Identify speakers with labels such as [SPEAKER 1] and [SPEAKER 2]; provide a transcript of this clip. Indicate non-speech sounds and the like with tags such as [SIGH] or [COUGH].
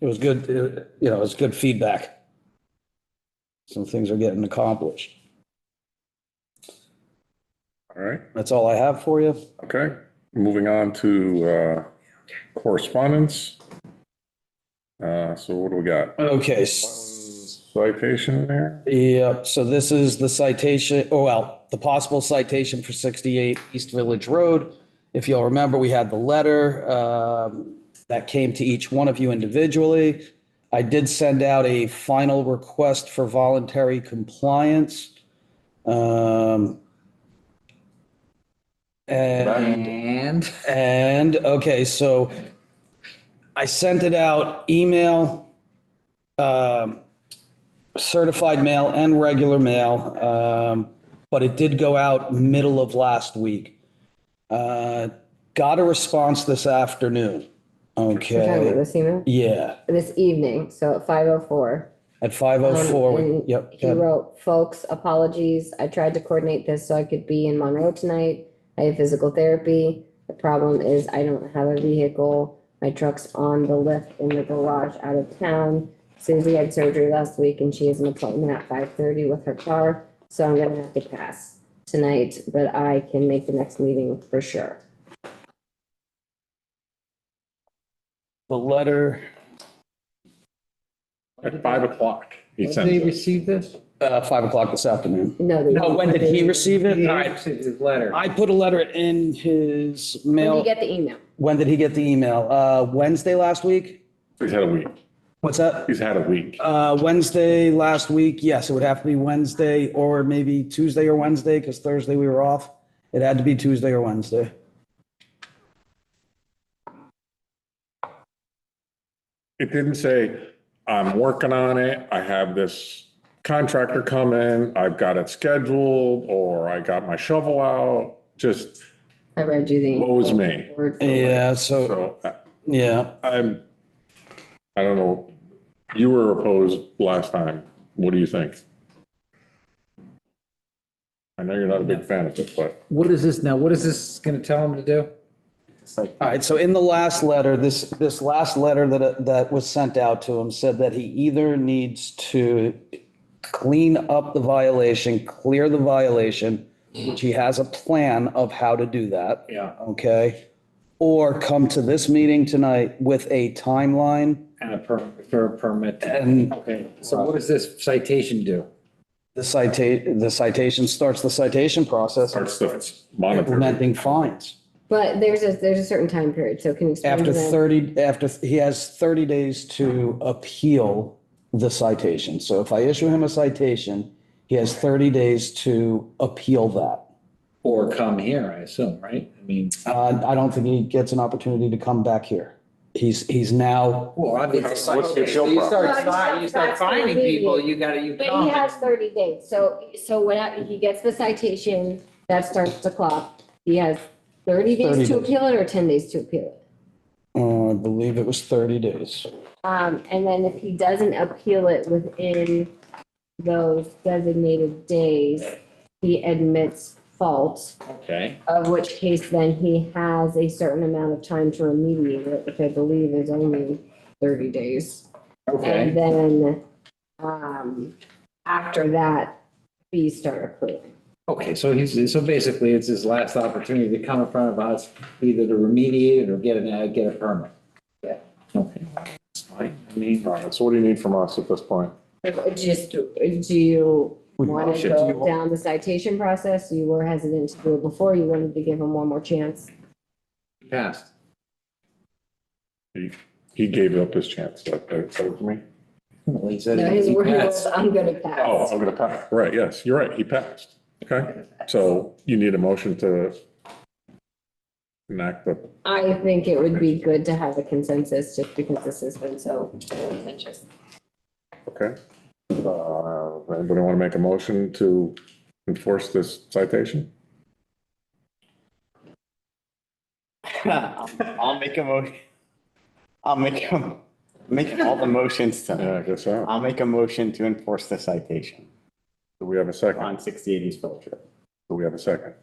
[SPEAKER 1] it was good, uh, you know, it's good feedback. Some things are getting accomplished.
[SPEAKER 2] All right,
[SPEAKER 1] That's all I have for you.
[SPEAKER 2] okay. Moving on to uh, correspondence. Uh, So what do we got?
[SPEAKER 1] Okay, s-
[SPEAKER 2] Citation there?
[SPEAKER 1] Yep, so this is the citation, oh, well, the possible citation for 68 East Village Road. If you'll remember, we had the letter um, that came to each one of you individually. I did send out a final request for voluntary compliance. Um, And
[SPEAKER 3] And
[SPEAKER 1] and, okay, so I sent it out, email, um, certified mail and regular mail, um, but it did go out middle of last week. Uh, Got a response this afternoon.
[SPEAKER 4] We're talking about
[SPEAKER 1] Okay,
[SPEAKER 4] this email,
[SPEAKER 1] yeah,
[SPEAKER 4] this evening, so at five oh four. Um,
[SPEAKER 1] at 5:04,
[SPEAKER 4] And
[SPEAKER 1] Oh, yep.
[SPEAKER 4] He wrote, folks, apologies. I tried to coordinate this so I could be in Monroe tonight. I have physical therapy. The problem is I don't have a vehicle. My truck's on the lift in the garage out of town. Susie had surgery last week and she has an appointment at five thirty with her car, so I'm gonna have to pass tonight, but I can make the next meeting for sure.
[SPEAKER 1] The letter,
[SPEAKER 2] At five o'clock. He
[SPEAKER 3] did he
[SPEAKER 2] sends it.
[SPEAKER 3] receive this?
[SPEAKER 1] uh, 5 o'clock this afternoon.
[SPEAKER 4] No, they.
[SPEAKER 1] No, when did he receive it?
[SPEAKER 3] He
[SPEAKER 1] All right,
[SPEAKER 3] received his letter.
[SPEAKER 1] I put a letter in his
[SPEAKER 4] When
[SPEAKER 1] mail.
[SPEAKER 4] did you get the email?
[SPEAKER 1] When did he get the email? Uh, Wednesday last week?
[SPEAKER 2] He's had a week.
[SPEAKER 1] What's that?
[SPEAKER 2] He's had a week.
[SPEAKER 1] Uh, Wednesday last week, yes, it would have to be Wednesday or maybe Tuesday or Wednesday, because Thursday we were off. It had to be Tuesday or Wednesday.
[SPEAKER 2] It didn't say, I'm working on it. I have this contractor come in. I've got it scheduled, or I got my shovel out. Just
[SPEAKER 4] I read you the.
[SPEAKER 2] woes me.
[SPEAKER 4] word for word.
[SPEAKER 1] Yeah, so,
[SPEAKER 2] So I-
[SPEAKER 1] yeah,
[SPEAKER 2] I'm, I don't know. You were opposed last time. What do you think? I know you're not a big fan of it, but
[SPEAKER 3] What is this now? What is this gonna tell him to do?
[SPEAKER 1] all right, so in the last letter, this, this last letter that, that was sent out to him said that he either needs to clean up the violation, clear the violation, which he has a plan of how to do that.
[SPEAKER 2] Yeah.
[SPEAKER 1] Okay, or come to this meeting tonight with a timeline
[SPEAKER 3] And a per, for a permit.
[SPEAKER 1] and
[SPEAKER 3] Okay, so what does this citation do?
[SPEAKER 1] The citation, the citation starts the citation process,
[SPEAKER 2] starts the monitoring.
[SPEAKER 1] implementing fines.
[SPEAKER 4] But there's a, there's a certain time period, so can you explain to
[SPEAKER 1] After
[SPEAKER 4] them?
[SPEAKER 1] 30, after, he has 30 days to appeal the citation. So if I issue him a citation, he has 30 days to appeal that.
[SPEAKER 3] Or come here, I assume, right? I mean,
[SPEAKER 1] Uh, I don't think he gets an opportunity to come back here. He's, he's now,
[SPEAKER 3] well, obviously.
[SPEAKER 2] What's the appeal
[SPEAKER 3] You start,
[SPEAKER 4] process?
[SPEAKER 3] fi- you start finding people, you gotta, you.
[SPEAKER 4] But he has thirty days, so, so when I- he gets the citation, that starts the clock. He has thirty
[SPEAKER 1] 30
[SPEAKER 4] days to
[SPEAKER 1] days.
[SPEAKER 4] appeal it or ten days to appeal it.
[SPEAKER 1] uh, I believe it was 30 days.
[SPEAKER 4] Um, and then if he doesn't appeal it within those designated days, he admits fault,
[SPEAKER 3] Okay.
[SPEAKER 4] of which case then he has a certain amount of time to remediate it, which I believe is only thirty days. And
[SPEAKER 3] Okay,
[SPEAKER 4] then, um, after that, fees start accruing.
[SPEAKER 3] okay, so he's, so basically it's his last opportunity to come in front of us, either to remediate it or get an, uh, get a permit.
[SPEAKER 4] Yeah.
[SPEAKER 3] Okay. That's fine. I mean,
[SPEAKER 2] All right, so what do you need from us at this point?
[SPEAKER 4] Just, do you want to
[SPEAKER 2] should-
[SPEAKER 4] go down the citation process? You were hesitant to do it before. You wanted to give him one more chance.
[SPEAKER 3] passed.
[SPEAKER 2] He, he gave up his chance. That, that that was me.
[SPEAKER 3] Well, he said
[SPEAKER 4] No, his
[SPEAKER 3] he
[SPEAKER 4] word was,
[SPEAKER 3] passed.
[SPEAKER 4] I'm gonna
[SPEAKER 2] Oh,
[SPEAKER 4] pass.
[SPEAKER 2] I'm gonna pass. Right, yes, you're right. He passed. Okay, so you need a motion to enact the,
[SPEAKER 4] I think it would be good to have a consensus just because this has been so contentious.
[SPEAKER 2] okay? Uh, anybody want to make a motion to enforce this citation?
[SPEAKER 5] [LAUGHS] I'll make a motion. I'll make a, making all the motions
[SPEAKER 2] Yeah, I
[SPEAKER 5] tonight.
[SPEAKER 2] guess so.
[SPEAKER 5] I'll make a motion to enforce the citation
[SPEAKER 2] Do we have a second?
[SPEAKER 5] on sixty eighties Village Road.
[SPEAKER 2] Do we have a second?